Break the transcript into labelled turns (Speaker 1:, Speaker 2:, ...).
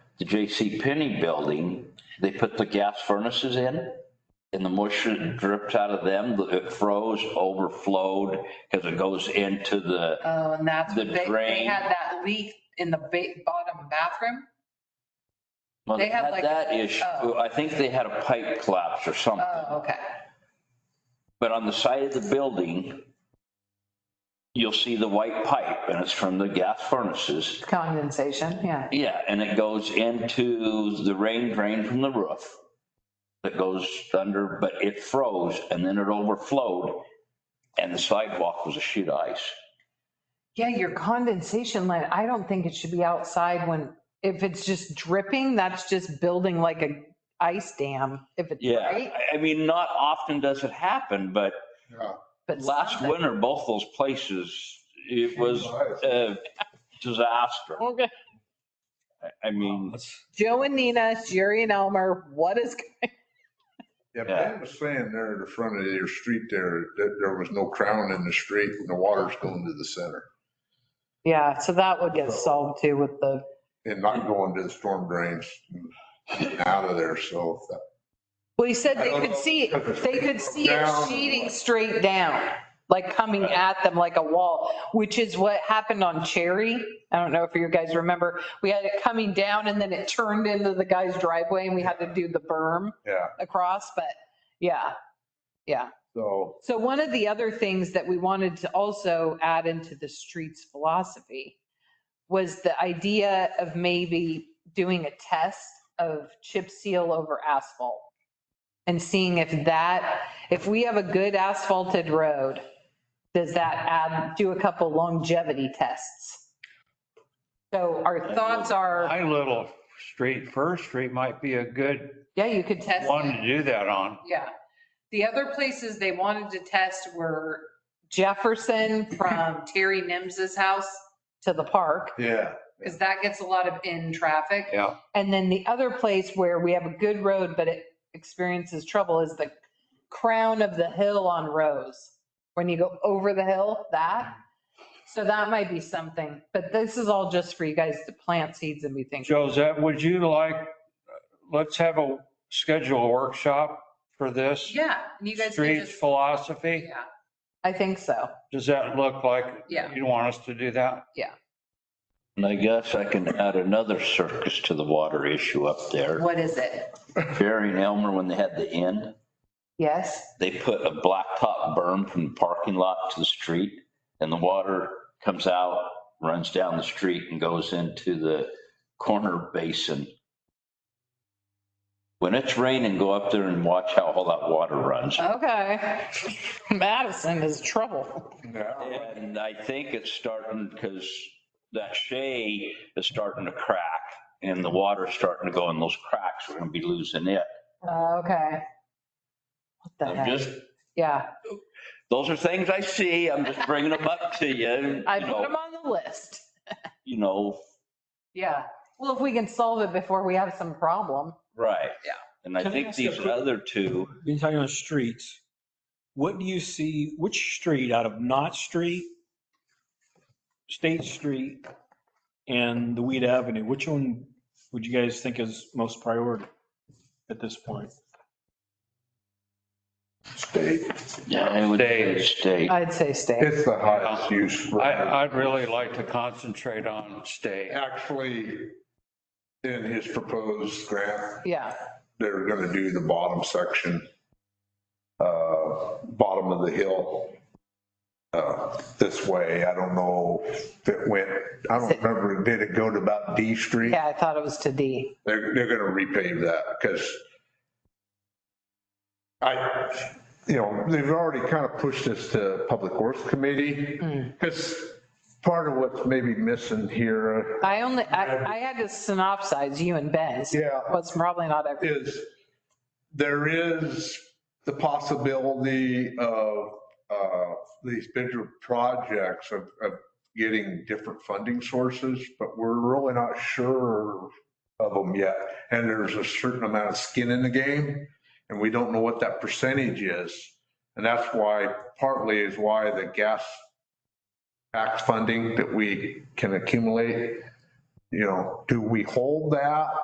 Speaker 1: the J.C. Penney building, they put the gas furnaces in and the moisture that drips out of them, it froze, overflowed because it goes into the,
Speaker 2: Uh,
Speaker 3: Oh, and that's,
Speaker 1: The
Speaker 3: what they, they
Speaker 1: drain.
Speaker 3: had that leak in the ba- bottom bathroom.
Speaker 1: well,
Speaker 3: They
Speaker 1: they
Speaker 3: have
Speaker 1: had
Speaker 3: like-
Speaker 1: that issue.
Speaker 3: oh.
Speaker 1: I think they had a pipe collapse or something.
Speaker 3: Oh, okay.
Speaker 1: But on the side of the building, you'll see the white pipe and it's from the gas furnaces.
Speaker 2: Condensation, yeah.
Speaker 1: Yeah, and it goes into the rain drain from the roof that goes under, but it froze and then it overflowed and the sidewalk was a sheet of ice.
Speaker 2: Yeah, your condensation line, I don't think it should be outside when, if it's just dripping, that's just building like a ice dam, if it's,
Speaker 1: Yeah,
Speaker 2: right?
Speaker 1: I- I mean, not often does it happen, but
Speaker 4: Yeah.
Speaker 2: But
Speaker 1: last
Speaker 2: something.
Speaker 1: winter, both those places, it was a disaster.
Speaker 2: Okay.
Speaker 1: I- I mean,
Speaker 2: Joe and Nina, Jerry and Elmer, what is,
Speaker 4: Yeah,
Speaker 1: Yeah.
Speaker 4: Ben was saying there at the front of your street there, that there was no crown in the street and the water's going to the center
Speaker 2: yeah, so that would get solved too with the,
Speaker 4: and not going to the storm drains and out of there. So that-
Speaker 2: well, he said
Speaker 4: I
Speaker 2: they
Speaker 4: don't
Speaker 2: could
Speaker 4: know.
Speaker 2: see, it. they could see it
Speaker 4: Down.
Speaker 2: sheeting straight down, like coming at them like a wall, which is what happened on Cherry. I don't know if you guys remember, we had it coming down and then it turned into the guy's driveway and we had to do the berm.
Speaker 4: yeah,
Speaker 2: across, but yeah, yeah.
Speaker 4: so
Speaker 2: So one of the other things that we wanted to also add into the streets philosophy was the idea of maybe doing a test of chip seal over asphalt and seeing if that, if we have a good asphalted road, does that add, do a couple longevity tests? So our thoughts are,
Speaker 5: My little street, First Street might be a good
Speaker 2: yeah, you could test.
Speaker 5: one to do that on.
Speaker 3: Yeah. The other places they wanted to test were
Speaker 2: Jefferson from
Speaker 3: from Terry Nims's house,
Speaker 2: to the park.
Speaker 4: yeah,
Speaker 3: because that gets a lot of in traffic.
Speaker 5: Yeah,
Speaker 2: And then the other place where we have a good road, but it experiences trouble is the crown of the hill on Rose. When you go over the hill, that. So that might be something, but this is all just for you guys to plant seeds and be thinking.
Speaker 5: Josette, would you like, let's have a schedule a workshop for this?
Speaker 3: Yeah, and you guys can
Speaker 5: Streets
Speaker 3: just,
Speaker 5: philosophy,
Speaker 3: yeah,
Speaker 2: I think so.
Speaker 5: does that look like?
Speaker 3: Yeah.
Speaker 5: You want us to do that?
Speaker 1: and I guess I can add another circus to the water issue up there.
Speaker 3: what is it?
Speaker 1: Barry and Elmer, when they had the inn,
Speaker 2: Yes.
Speaker 1: they put a blacktop berm from the parking lot to the street and the water comes out, runs down the street and goes into the corner basin. When it's raining, go up there and watch how all that water runs.
Speaker 2: Okay. Madison is trouble.
Speaker 4: yeah.
Speaker 1: And I think it's starting because that shade is starting to crack and the water's starting to go in those cracks. We're gonna be losing it.
Speaker 2: Okay. What the
Speaker 1: I'm
Speaker 2: heck?
Speaker 1: just,
Speaker 2: Yeah,
Speaker 1: those are things I see. I'm just bringing them up to you.
Speaker 2: I
Speaker 1: you
Speaker 2: put
Speaker 1: know,
Speaker 2: them on the list.
Speaker 1: You know,
Speaker 2: Yeah. Well, if we can solve it before we have some problem.
Speaker 1: right.
Speaker 3: Yeah.
Speaker 1: And I
Speaker 6: Can I
Speaker 1: think
Speaker 6: ask you a
Speaker 1: these
Speaker 6: quick-
Speaker 1: other two,
Speaker 6: Being talking on streets, what do you see, which street out of Knott Street, State Street, and the Weed Avenue, which one would you guys think is most priority at this point?
Speaker 4: state.
Speaker 1: yeah, I would say state.
Speaker 2: I'd say stay.
Speaker 4: It's the highest use. for-
Speaker 5: I, I'd really like to concentrate on stay.
Speaker 4: Actually, in his proposed grant,
Speaker 2: Yeah.
Speaker 4: they're gonna do the bottom section, uh, bottom of the hill, uh, this way. I don't know if it went, I don't remember, did it go to about D Street?
Speaker 2: Yeah, I thought it was to D.
Speaker 4: They're, they're gonna repave that because I, you know, they've already kind of pushed this to Public Works Committee. Because part of what's maybe missing here
Speaker 2: I only, I, I had to synopsize you and Ben's.
Speaker 4: Yeah.
Speaker 2: Well, it's probably not every,
Speaker 4: is there is the possibility of uh, these bigger projects of, of getting different funding sources, but we're really not sure of them yet. And there's a certain amount of skin in the game and we don't know what that percentage is. And that's why, partly is why the gas tax funding that we can accumulate, you know, do we hold that